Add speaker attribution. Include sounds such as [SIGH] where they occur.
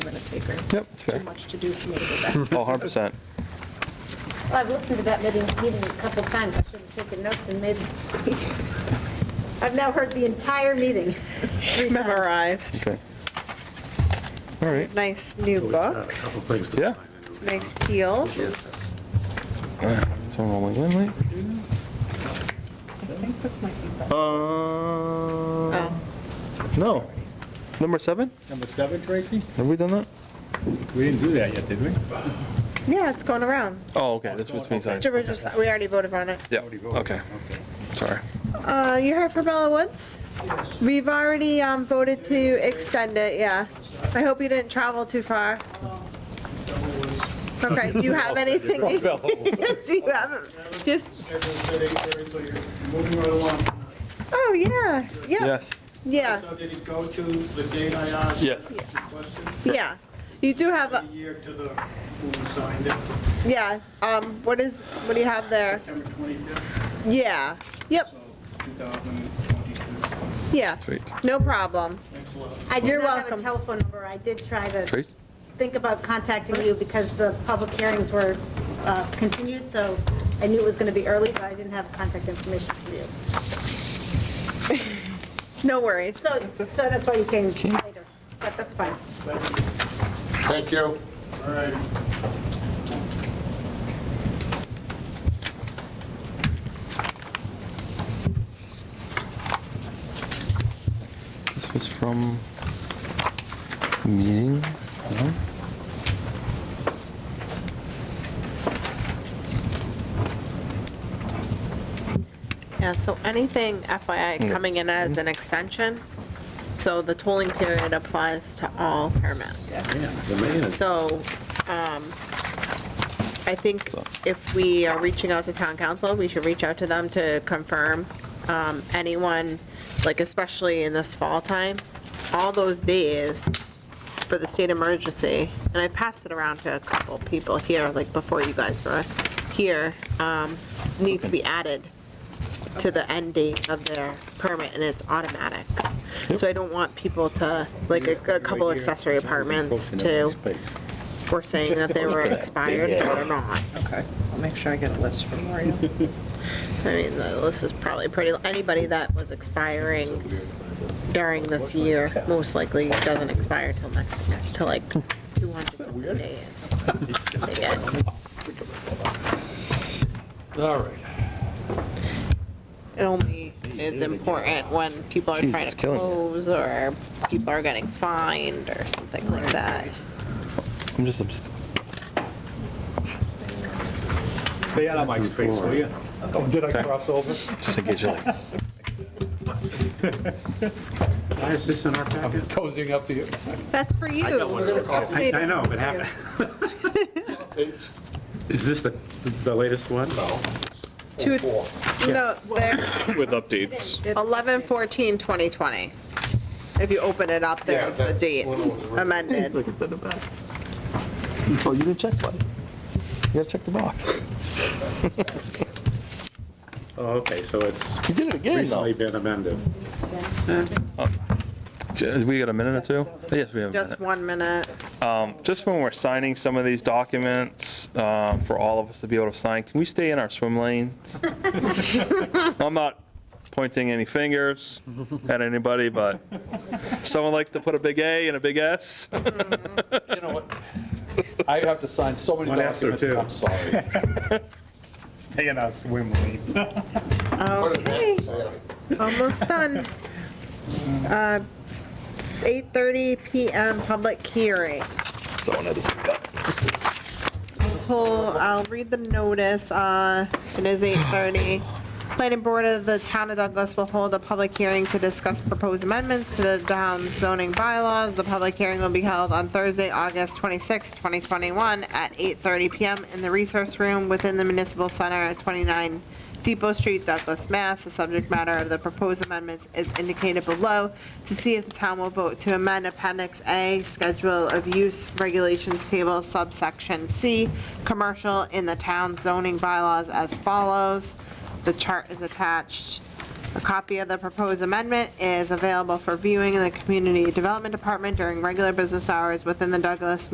Speaker 1: minute taker.
Speaker 2: Yep, that's fair.
Speaker 1: Too much to do for me to go
Speaker 2: [LAUGHS]
Speaker 1: back.
Speaker 2: Oh, 100%.
Speaker 3: Well, I've listened to that meeting, meeting a couple times, I should have taken notes and made, I've now heard the entire meeting. three times.
Speaker 1: [LAUGHS] Memorized.
Speaker 2: Okay. All right,
Speaker 1: Nice new books.
Speaker 4: Couple things to
Speaker 2: yeah.
Speaker 1: Nice teal.
Speaker 2: It's all rolling in, right?
Speaker 1: I think this might be better.
Speaker 2: Uh,
Speaker 1: Oh,
Speaker 2: no. Number seven?
Speaker 5: Number seven, Tracy?
Speaker 2: Have we done that?
Speaker 5: We didn't do that yet, did we?
Speaker 1: Yeah, it's going around.
Speaker 2: Oh, okay, this was me, sorry.
Speaker 1: Mr. Bridges, we already voted on it.
Speaker 2: Yeah, okay, sorry.
Speaker 1: Uh, you heard from Bella Woods? We've already, um, voted to extend it, yeah. I hope you didn't travel too far. Okay, do you [LAUGHS] have anything? [LAUGHS] Do you have, just,
Speaker 6: Moving right along.
Speaker 1: oh, yeah, yeah,
Speaker 2: Yes.
Speaker 1: yeah,
Speaker 6: So did it go to the date I asked?
Speaker 2: Yes.
Speaker 6: the Question?
Speaker 1: yeah. You do have,
Speaker 6: The
Speaker 1: a-
Speaker 6: year to the, who signed it,
Speaker 1: yeah, um, what is, what do you have there?
Speaker 6: September 25th,
Speaker 1: Yeah, yep,
Speaker 6: so 2022.
Speaker 1: yes,
Speaker 2: Sweet.
Speaker 1: no problem.
Speaker 6: Thanks a lot.
Speaker 3: I do
Speaker 1: You're
Speaker 3: not have
Speaker 1: welcome.
Speaker 3: a telephone number, I did try to
Speaker 2: Trace?
Speaker 3: think about contacting you because the public hearings were uh, continued, so I knew it was going to be early, but I didn't have contact information for you.
Speaker 1: No worries.
Speaker 3: So, so that's why you came later, but that's fine.
Speaker 4: Thank you.
Speaker 6: All right.
Speaker 2: This was from meeting, no?
Speaker 1: Yeah, so anything FYI coming in as an extension, so the tolling period applies to all permits. So um, I think
Speaker 2: So-
Speaker 1: if we are reaching out to town council, we should reach out to them to confirm um, anyone, like especially in this fall time, all those days for the state emergency, and I passed it around to a couple people here, like before you guys were here, um, need to be added to the end date of their permit, and it's automatic. So I don't want people to, like, a a couple accessory apartments to, were saying that they
Speaker 2: [LAUGHS]
Speaker 1: were expired or not.
Speaker 7: Okay, I'll make sure I get a list for Maria.
Speaker 1: I mean, the list is probably pretty, anybody that was expiring during this year most likely doesn't expire till next year, till like 200 something days. They get.
Speaker 4: All right.
Speaker 1: It only is important when people are
Speaker 2: Jeez,
Speaker 1: trying
Speaker 2: it's
Speaker 1: to
Speaker 2: killing you.
Speaker 1: close or people are getting fined or something like that.
Speaker 2: I'm just, obs-
Speaker 5: Stay out of my space, will you?
Speaker 4: Oh, did I cross over?
Speaker 2: just in case you're like,
Speaker 8: Why is this in our packet?
Speaker 4: Cozying up to you.
Speaker 1: That's for you.
Speaker 8: I I know, but happened.
Speaker 4: [LAUGHS]
Speaker 8: Is this the, the latest one?
Speaker 1: Two, no, there,
Speaker 9: with updates.
Speaker 1: 11, 14, 2020. If you open it up, there's the dates amended.
Speaker 2: oh, you didn't check, buddy. You gotta check the box.
Speaker 8: Oh, okay, so it's
Speaker 2: You did it again,
Speaker 8: recently
Speaker 2: though.
Speaker 8: been amended.
Speaker 2: J- We got a minute or two? Yes, we have a minute. Um,
Speaker 1: Just one minute.
Speaker 2: just when we're signing some of these documents, uh, for all of us to be able to sign, can we stay in our swim lanes?
Speaker 1: [LAUGHS]
Speaker 2: I'm not pointing any fingers at anybody, but someone likes to put a big A and a big S.
Speaker 4: You know what? I have to sign so many
Speaker 8: One after
Speaker 4: documents,
Speaker 8: two.
Speaker 4: I'm sorry.
Speaker 5: Stay in our swim lanes.
Speaker 1: Okay, almost done. Uh, 8:30 PM, public hearing.
Speaker 2: Someone had this big up.
Speaker 1: Pull- I'll read the notice, uh, it is 8:30. Planning Board of the Town of Douglas will hold a public hearing to discuss proposed amendments to the town's zoning bylaws. The public hearing will be held on Thursday, August 26, 2021, at 8:30 PM in the Resource Room within the Municipal Center at 29 Depot Street, Douglas, Mass. The subject matter of the proposed amendments is indicated below to see if the town will vote to amend Appendix A, Schedule of Use Regulations Table subsection C, Commercial in the Town Zoning Bylaws as follows. The chart is attached.
Speaker 10: A copy of the proposed amendment is available for viewing in the Community Development Department during regular business hours within the Douglas